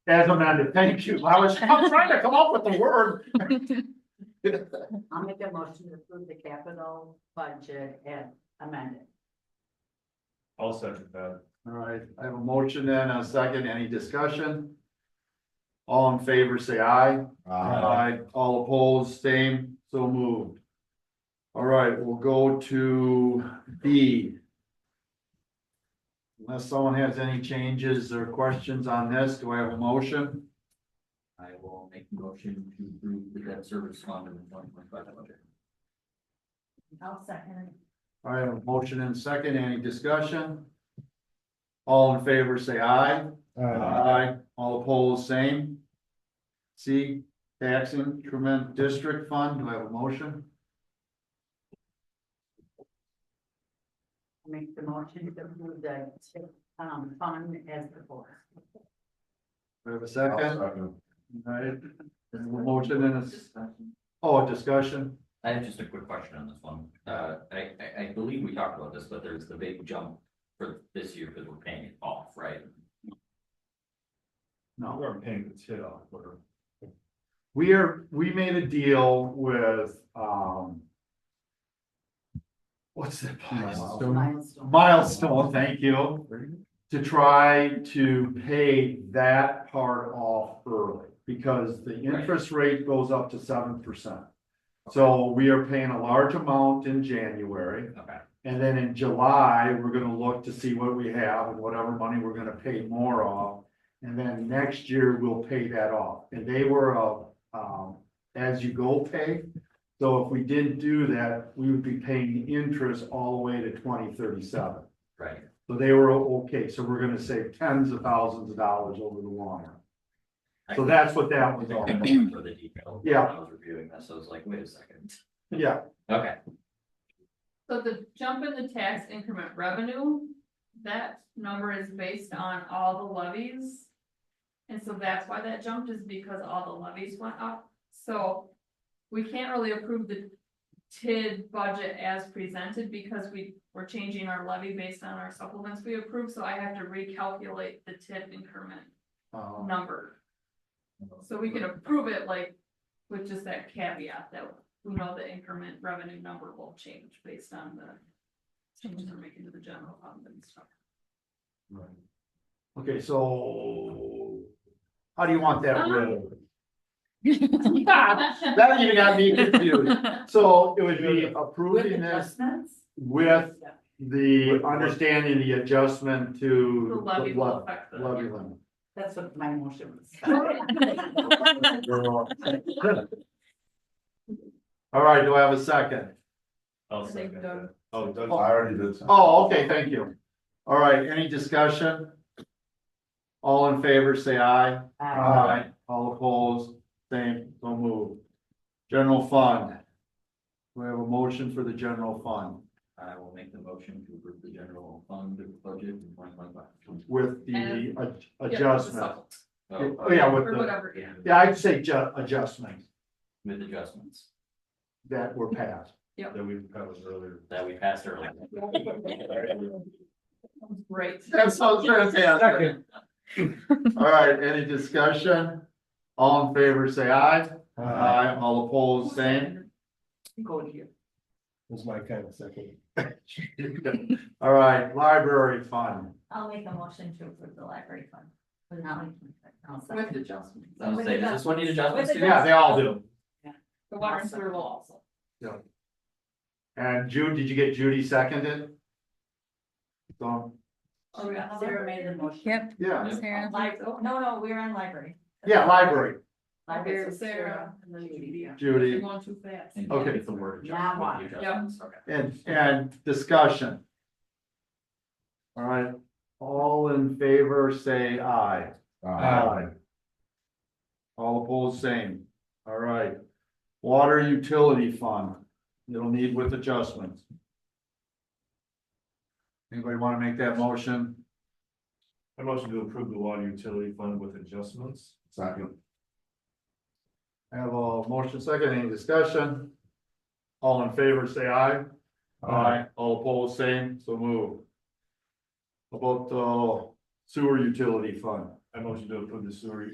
As amended, thank you. I was, I'm trying to come up with the word. I'll make a motion to approve the capital budget and amend it. I'll second that. All right, I have a motion and a second. Any discussion? All in favor, say aye. All opposed, same, so moved. All right, we'll go to B. Unless someone has any changes or questions on this, do I have a motion? I will make a motion to approve the debt service fund in the twenty twenty-five budget. I'll second. All right, a motion and second, any discussion? All in favor, say aye. Aye. All opposed, same. C, tax increment district fund, do I have a motion? Make the motion to approve the, um, fund as before. Do I have a second? All right, there's a motion and a, s- oh, discussion, I have just a quick question on this one. Uh, I, I, I believe we talked about this, but there's the big jump for this year because we're paying it off, right? no. We're paying the shit off, we're. We are, we made a deal with, um. What's the place? Milestone. Milestone, thank you, to try to pay that part off early. Because the interest rate goes up to seven percent. So we are paying a large amount in January. Okay, And then in July, we're gonna look to see what we have and whatever money we're gonna pay more off. And then next year, we'll pay that off. And they were, uh, um, as you go pay. So if we didn't do that, we would be paying interest all the way to twenty thirty-seven. right. So they were okay, so we're gonna save tens of thousands of dollars over the long run. So that's what that was all I about. remember the detail. when Yeah. I was reviewing this, I was like, wait a second. Yeah, Okay, So the jump in the tax increment revenue, that number is based on all the levies. And so that's why that jumped is because all the levies went up, so we can't really approve the TID budget as presented because we were changing our levy based on our supplements we approved, so I have to recalculate the TID increment um, number. So we can approve it like with just that caveat that we know the increment revenue number will change based on the. Changes we're making to the general fund and stuff. right. Okay, so. How do you want that Uh-huh. written? That even got me confused. So it would be With approving this adjustments? with Yeah. the understanding, the adjustment The to. the levy will affect the. Levy limit. That's what my motion was. Oh, All right, do I have a second? I'll I think second Doug- that. Oh, Doug. I already did. Oh, okay, thank you. All right, any discussion? All in favor, say aye. Uh, Aye. All opposed, same, so moved. General fund. We have a motion for the general fund I will make the motion to approve the general fund budget in twenty twenty-five. with the And- ad- Yeah, the adjustment. supplement, uh, Oh, yeah, with Or the, whatever, yeah, yeah, I'd say ju- adjustments With adjustments that were passed. That we covered earlier. that we passed earlier. great. That's so fantastic. All right, any discussion? All in favor, say aye. Uh, Aye, all opposed, same. Go here. Was my kind of second. All right, library fund. I'll make a motion to approve the library fund. But not like. I'll second. With adjustments, I was saying, does this one need adjustments too? Yeah, they all do. the water and sewer will also. And Jude, did you get Judy seconded? So, Oh, we got another? Sarah made the motion. Yep, yeah, Sarah. Library, oh, no, no, we're on library. yeah, library, Okay, Library, Sarah. so Sarah and then Judy. You're Judy, going too fast. And Okay. It's the word Now what? adjustment. with the adjustments, okay. and, and discussion. All right, all in favor, say aye. Aye. All opposed, same. All right. Water utility fund, it'll need with adjustments. Anybody want to make that motion? I motion to approve the water utility fund with adjustments. Second. I have a motion second, any discussion? All in favor, say aye. All opposed, same, so move. About the sewer utility fund. I motion to approve the sewer